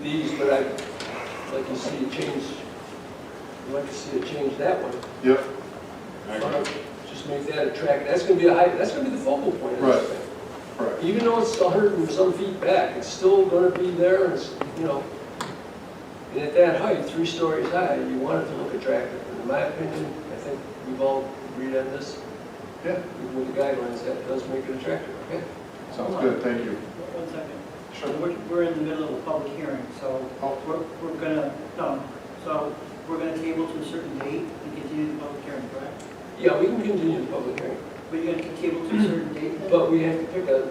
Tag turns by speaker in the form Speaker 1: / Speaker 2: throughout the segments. Speaker 1: these, but I'd like to see a change, I'd like to see a change that one.
Speaker 2: Yep.
Speaker 1: Just make that attractive, that's gonna be a high, that's gonna be the focal point of
Speaker 2: Right.
Speaker 1: this thing.
Speaker 2: Right.
Speaker 1: Even though it's a hundred and some feet back, it's still gonna be there, and it's, you know, and at that height, three stories high, you want it to look attractive. And In my opinion, I think we've all agreed on this,
Speaker 2: Yeah,
Speaker 1: even with the guidelines, that does make it attractive, okay?
Speaker 2: sounds good, thank you.
Speaker 3: One second. We're, we're in the middle of a public hearing, so
Speaker 2: Oh.
Speaker 3: we're, we're gonna, no, so we're gonna table to a certain date and continue the public hearing, correct?
Speaker 1: Yeah, we can continue the public hearing,
Speaker 3: But you're gonna table to a certain date then?
Speaker 1: but we have to pick a,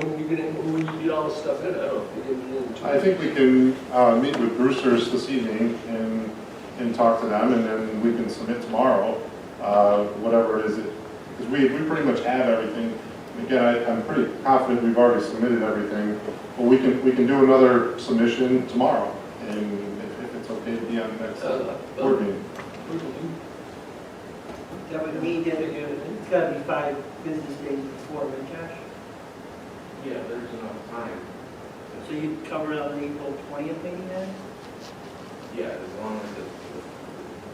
Speaker 1: when we get, in- when you get all this stuff in, I don't know if we get it in. two
Speaker 2: I think we can uh, meet with Brewsters this evening and, and talk to them, and then we can submit tomorrow, uh, whatever it is. Because we, we pretty much have everything. And Again, I- I'm pretty confident we've already submitted everything, but we can, we can do another submission tomorrow, and if if it's okay to be on the next
Speaker 1: Uh,
Speaker 2: board meeting.
Speaker 1: we can do-
Speaker 3: That would mean that it's gotta be five business days before, right, Josh?
Speaker 4: Yeah, there's enough time.
Speaker 3: So you'd cover it on the April twentieth meeting then?
Speaker 4: Yeah, as long as it,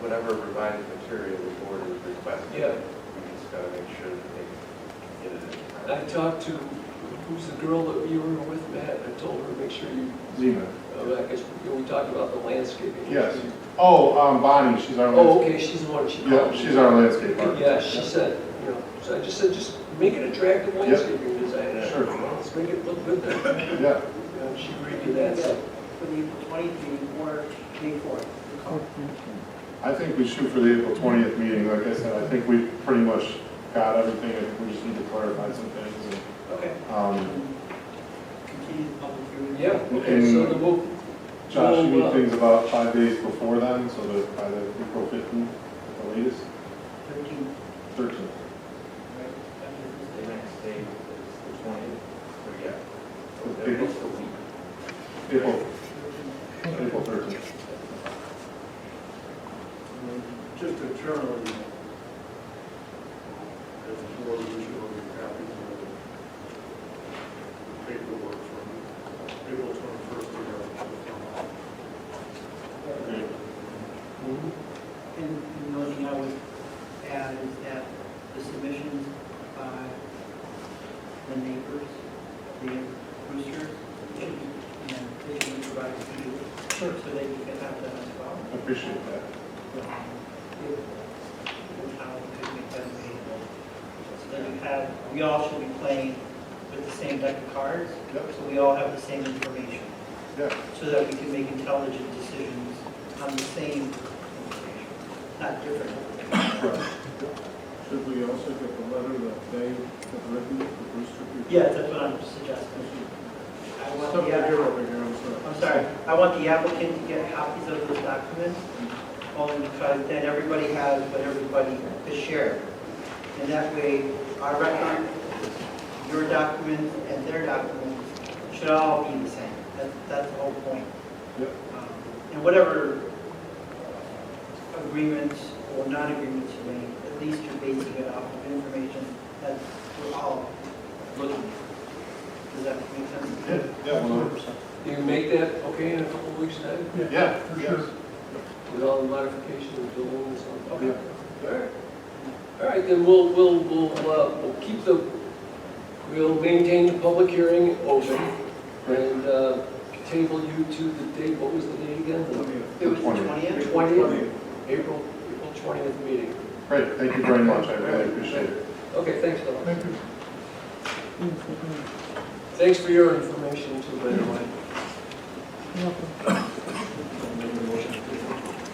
Speaker 4: whatever revised material the board is requesting.
Speaker 1: Yeah.
Speaker 4: We just gotta make sure that they get it in
Speaker 1: I
Speaker 4: time.
Speaker 1: talked to, who's the girl that you were with, Matt, I told her, make sure you,
Speaker 2: Zena.
Speaker 1: oh, I guess, you know, we talked about the landscaping.
Speaker 2: Yes. Oh, um, Bonnie, she's our
Speaker 1: Oh,
Speaker 2: landscape.
Speaker 1: okay, she's the one, she
Speaker 2: Yeah,
Speaker 1: called.
Speaker 2: she's our landscape architect.
Speaker 1: Yeah, she said, you know, so I just said, just make it attractive landscaping design. I
Speaker 2: Sure.
Speaker 1: don't know, Let's make it look good there.
Speaker 2: Yeah,
Speaker 1: And She agreed to that, so.
Speaker 3: For the April twentieth meeting or May fourth?
Speaker 2: I think we shoot for the April 20th meeting, like I said, I think we pretty much got everything, I think we just need to clarify some things.
Speaker 3: Okay.
Speaker 2: and, um,
Speaker 3: Continue the public hearing.
Speaker 1: Yeah, okay, so then we'll,
Speaker 2: Josh, you
Speaker 1: Well,
Speaker 2: need
Speaker 1: uh,
Speaker 2: things about five days before then, so that by the April 15th, at the latest,
Speaker 3: Thirteen,
Speaker 2: 13th.
Speaker 3: right, after this
Speaker 4: The
Speaker 3: day.
Speaker 4: next date is the twentieth, so yeah.
Speaker 2: The
Speaker 4: That
Speaker 2: big-
Speaker 4: was the week.
Speaker 2: April,
Speaker 3: 13.
Speaker 2: April 13th.
Speaker 5: Just internally, as a board, we should all be happy with the paperwork from April twenty-first to now.
Speaker 2: Okay.
Speaker 1: mhm,
Speaker 3: And the only thing I would add is that the submissions by the neighbors, the roosters, and they should be provided to you. Sure. So that you can have that as well.
Speaker 2: I Appreciate that.
Speaker 3: Um, if- if How we could make that available. So that you have, we all should be playing with the same deck of cards.
Speaker 2: Yep.
Speaker 3: So we all have the same information,
Speaker 2: Yeah,
Speaker 3: so that we can make intelligent decisions on the same information, not different information.
Speaker 2: right.
Speaker 5: Should we also get the letter that they have written, the Brewster people?
Speaker 3: Yeah, that's what I'm suggesting. I want
Speaker 5: Stuff
Speaker 3: the
Speaker 5: that
Speaker 3: app-
Speaker 5: you're over here, Oh, I'm
Speaker 3: I'm
Speaker 5: sorry.
Speaker 3: sorry, I want the applicant to get copies of those documents, only because then everybody has what everybody is shared. And that way, our record, your documents, and their documents should all be the same. That's, that's the whole point.
Speaker 2: Yep.
Speaker 3: Um, And whatever agreements or non-agreements you make, at least you're basing it off of information that we're all looking at. Does that make sense?
Speaker 2: Yeah, yeah, 100%.
Speaker 1: you can make that okay in a couple of weeks' time
Speaker 2: Yeah, for sure.
Speaker 1: with all the modifications and building and stuff? Okay.
Speaker 2: Yeah.
Speaker 1: All right. All right, then we'll, we'll, we'll, uh, we'll keep the, we'll maintain the public hearing open and uh, table you to the date, what was the date again? The
Speaker 3: It was the
Speaker 2: 20th.
Speaker 3: 20th?
Speaker 1: 20th? April, April 20th meeting.
Speaker 2: Great, thank you very much, I really appreciate it.
Speaker 1: Okay, thanks, Don. Thanks for your information too, man.